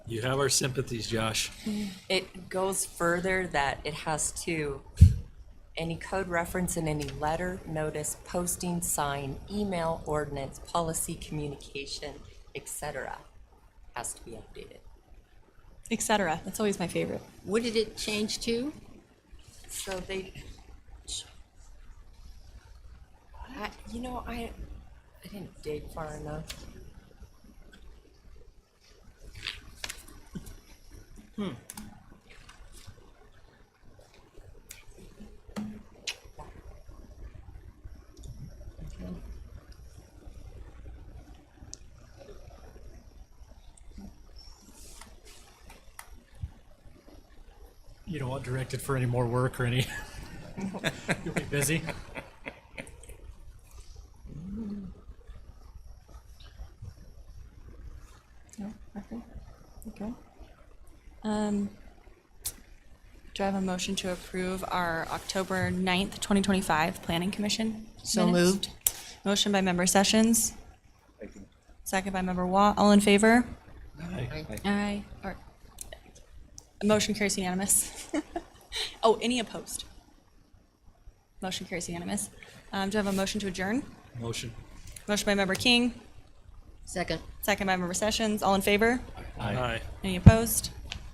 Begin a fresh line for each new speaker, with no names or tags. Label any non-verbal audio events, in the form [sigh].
You have our sympathies, Josh.
It goes further that it has to, any code reference in any letter, notice, posting, sign, email, ordinance, policy, communication, et cetera, has to be updated.
etc. That's always my favorite.
What did it change to?
So they, I, you know, I, I didn't dig far enough.
You don't want directed for any more work or any. [laughs] You'll be busy.
No, nothing. Okay. Um, do I have a motion to approve our October 9th, 2025 Planning Commission?
So
minutes?
moved.
Motion by member Sessions. Second by member Watt. All in favor? Aye. Or, motion carries unanimous. [laughs] oh, any opposed? Motion carries unanimous. Um, do I have a motion to adjourn?
Motion.
Motion by member King.
Second.
Second by member Sessions. All in favor?
Aye.
Any opposed?